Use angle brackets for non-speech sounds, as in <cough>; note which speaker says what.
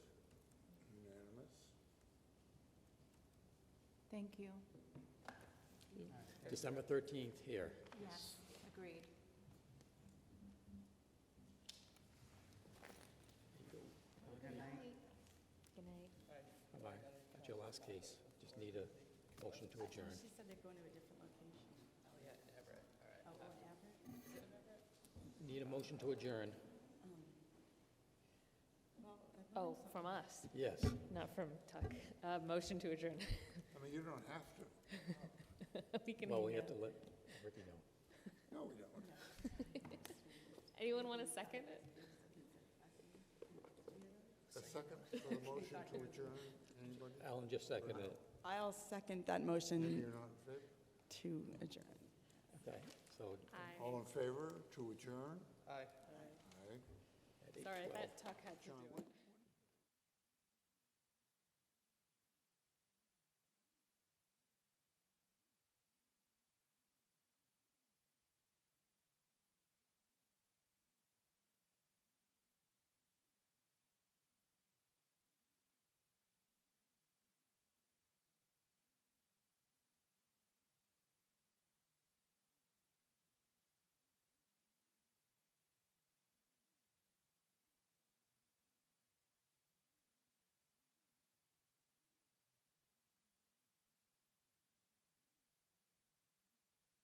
Speaker 1: Thank you.
Speaker 2: December 13th here.
Speaker 1: Yes, agreed.
Speaker 3: Good night.
Speaker 2: Bye-bye. That's your last case. Just need a motion to adjourn.
Speaker 1: She said they're going to a different location. Oh, yeah, Everett, all right. Oh, Everett?
Speaker 2: Need a motion to adjourn.
Speaker 3: Oh, from us,
Speaker 2: Yes.
Speaker 3: not from Tuck. Uh, Motion to adjourn. <laughs>
Speaker 4: I mean, you don't have to.
Speaker 3: We can
Speaker 2: Well, we
Speaker 3: hang
Speaker 2: have to let
Speaker 3: out.
Speaker 2: Ricky know.
Speaker 4: No, we don't.
Speaker 3: Anyone want to second it?
Speaker 4: A second for the motion to adjourn, anybody?
Speaker 2: Alan just seconded it.
Speaker 5: I'll second that motion
Speaker 4: You're not in favor?
Speaker 5: to adjourn.
Speaker 2: Okay, so
Speaker 3: Aye.
Speaker 4: All in favor to adjourn? Aye. Aye.
Speaker 2: at 8:12.
Speaker 3: Sorry, I thought Tuck had to do it.